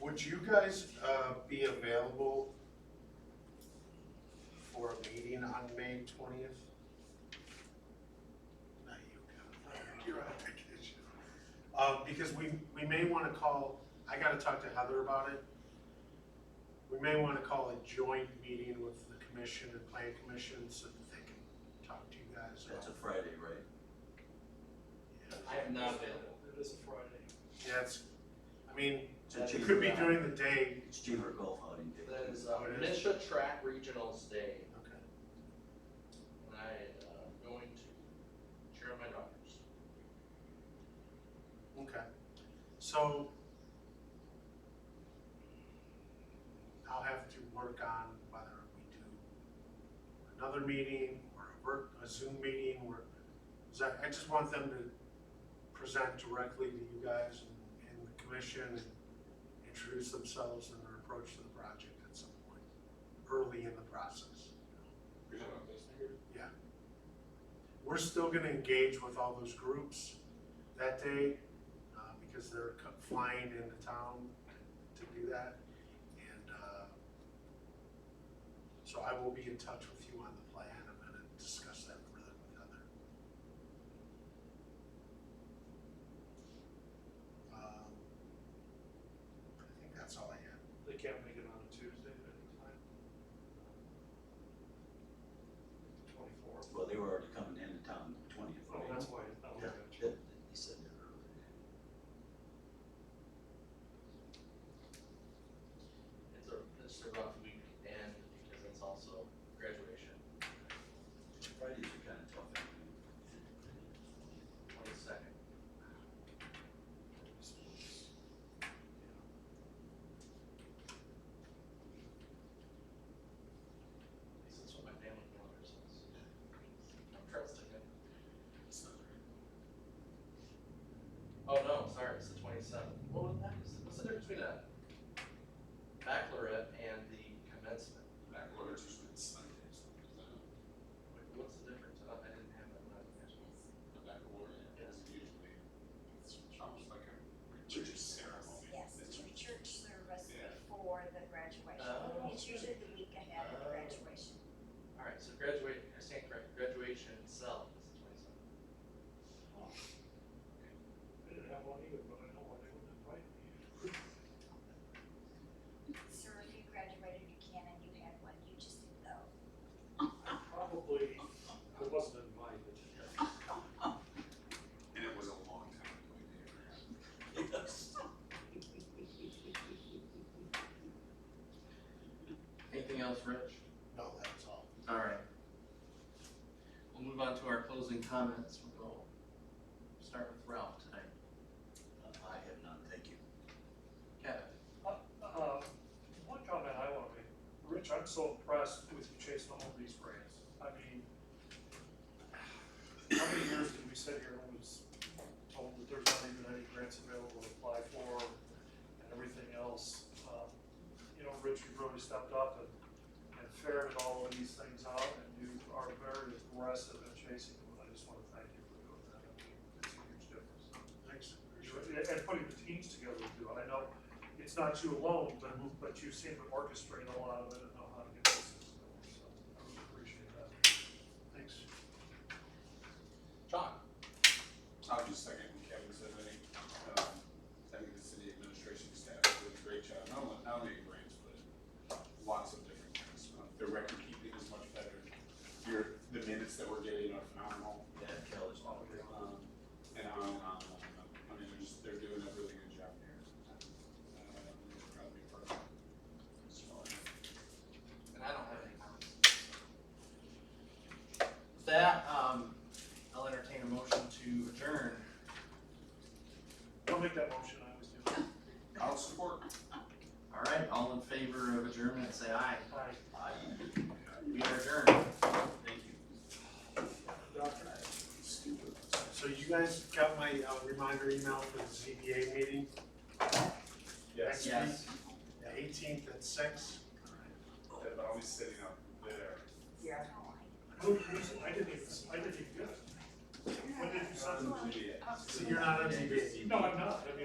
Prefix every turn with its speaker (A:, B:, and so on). A: Would you guys, uh, be available for a meeting on May twentieth? Not you, Kevin, you're on vacation. Uh, because we, we may wanna call, I gotta talk to Heather about it. We may wanna call a joint meeting with the commission and plan commission so that they can talk to you guys.
B: That's a Friday, right?
C: I am not available.
D: It is a Friday.
A: Yeah, it's, I mean,
B: It's a
A: it
B: cheaper-
A: could be during the day,
B: It's cheaper golf outing day.
C: That is, uh,
A: Oh, it is?
C: Misha Track Regionals Day,
A: okay.
C: and I, uh, am going to cheer on my daughters.
A: Okay, so I'll have to work on whether we do another meeting or a work, a Zoom meeting or, 'cause I, I just want them to present directly to you guys and, and the commission and introduce themselves and their approach to the project at some point, early in the process.
C: You're talking about this
A: We're still gonna engage with all those groups that day, uh, because they're co- flying into town to do that. And, uh, so I will be in touch with you on the plan, I'm gonna discuss that further with Heather. Um, I think that's all I have.
D: They can't make it on a Tuesday at any time. Twenty-four.
B: Well, they were already coming into town the twentieth,
D: Oh,
B: right?
D: that's why, oh,
A: Yeah.
B: They
D: gotcha.
B: they said that earlier.
C: It's a, it's a rough week, and because it's also graduation,
B: Fridays are kind of tough.
C: twenty-second. At least that's what my family calendar says. I'm trusting it. Oh, no, I'm sorry, it's the twenty-seventh. What was that? Is- What's the difference between a baccalaureate and the commencement?
E: Backloaders usually it's Sundays, is that a
C: Wait, What's the difference? Uh, I didn't have that when I was there.
E: baccalaureate?
C: Yes.
E: It's Usually, it's almost like a religious ceremony.
F: Yes, it's a church service
E: Yeah.
F: before the graduation.
C: Oh.
F: It's usually the week ahead of
C: Oh.
F: the graduation.
C: All right, so graduate, I stand correct, graduation itself is the twenty-seventh.
D: I didn't have one either, but I know why they wouldn't invite me.
F: So if you graduated, you can, and you had one, you just didn't know.
D: Probably, I wasn't invited.
E: And it was a long time ago, we never had.
B: Yes.
C: Anything else, Rich?
A: No, that's all.
C: All right. We'll move on to our closing comments. We'll go start with Ralph tonight.
B: Uh, I have none, thank you.
C: Kevin?
D: Uh, One comment I want to make, Rich, I'm so impressed with you chasing all these brands. I mean, how many years did we sit here and was told that there's not even any grants available to apply for and everything else? Um, You know, Rich, you've really stepped up and, and ferreted all of these things out and you are very aggressive in chasing them. I just want to thank you for doing that. It's a huge difference.
A: Thanks.
D: And and putting the teams together too, I know it's not you alone, but,
A: Mm-hmm.
D: but you seem to orchestrate a lot of it and know how to get this system going, so I really appreciate that.
A: Thanks.
C: John?
E: I'll just second what Kevin said, I think, um, I think the city administration staff did a great job, not only, not only in grants, but lots of different things. Uh, Their record keeping is much better, your, the minutes that we're getting are phenomenal.
B: Yeah, Cal is all good.
E: Um, and on and on and on. and on. I mean, they're just, they're doing a really good job here. Uh, they're probably perfect. So,
C: And I don't have any comments. With that, um, I'll entertain a motion to adjourn.
D: Don't make that motion, I always do.
E: I'll support.
C: All right, all in favor of adjournment, say aye.
D: Aye.
B: I,
C: We are adjourned.
B: thank you.
A: So you guys got my uh, reminder email for the ZBA meeting? Next week,
C: Yes.
A: the eighteenth at six?
E: But I'll be sitting up there.
F: Yeah.
D: Who, who's, I didn't even, I didn't even get it. When did you sign?
E: Yeah.
A: So you're not on ZBA?
D: No, I'm not, I mean,